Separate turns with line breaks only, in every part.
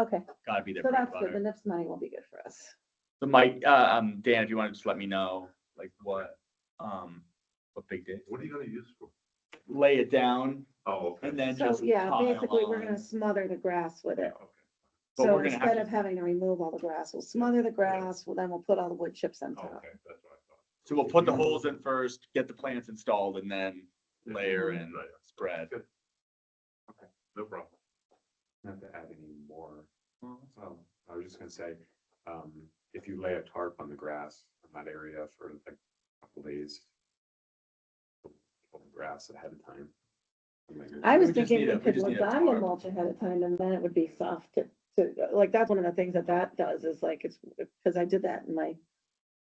Okay,
gotta be there.
so
bread and
that's good. The
butter.
NIPS money will be good for us.
So Mike, uh, um, Dan, if you want to just let me know, like what, um, what big day,
What are you gonna use for?
lay it down
Oh, okay.
and then
So,
just.
yeah,
pile
basically, we're gonna
on.
smother the grass with it.
Okay.
But
So
we're gonna have
instead
to-
of having to remove all the grass, we'll smother the grass, well, then we'll put all the wood chips on
Oh,
top.
Okay, that's what I thought.
So we'll put the holes in first, get the plants installed and then layer and
Layer.
spread.
Good. Okay, no problem. Not to add any more. Um, I was just gonna say, um, if you lay a tarp on the grass in that area for like a couple days. pull the Grass ahead of time.
I was
We just
thinking
need a-
we
we
could
just need a
lasagna
tarp.
mulch ahead of time and then it would be soft to, to, like, that's one of the things that that does is like, it's, because I did that in my,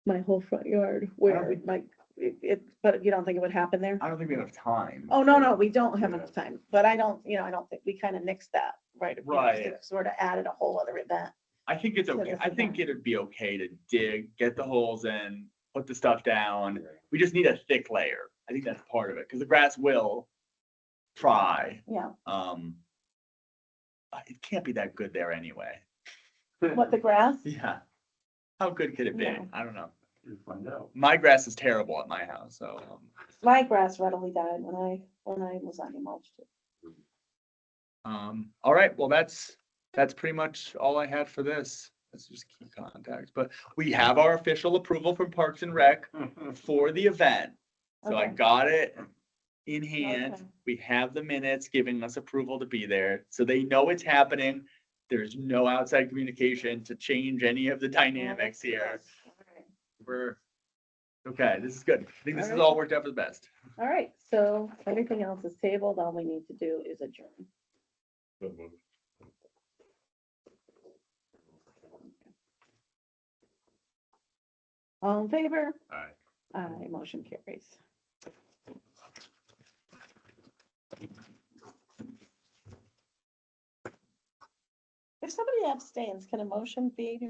my whole front yard where
Alright.
like, it, it, but you don't think it would happen there?
I don't think we have time.
Oh, no, no, we don't have
Yeah.
enough time, but I don't, you know, I don't think, we kind of nixed that, right?
Right.
Sort of added a whole other event.
I think it's
So
okay.
that's
I think
fine.
it'd be okay to dig, get the holes in, put the stuff down.
Right.
We just need a thick layer. I think that's part of it, because the grass will try.
Yeah,
Um. uh, It can't be that good there anyway.
what, the grass?
Yeah. How good could it be?
No.
I don't know.
You find out.
My grass is terrible at my house, so. um,
My grass readily died when I, when I was on mulch.
Um, all right, well, that's, that's pretty much all I had for this. That's just key contacts, but we have our official approval from Parks and Rec for the event. So I
Okay.
got it in hand.
Okay.
We have the minutes giving us approval to be there, so they know it's happening. There's no outside communication to change any of the dynamics here. We're, okay, this is good. I think this is
Alright.
all worked out for the best.
All right, so everything else is tabled. All we need to do is adjourn. All in favor?
Alright.
Aye, motion carries. If somebody abstains, can a motion be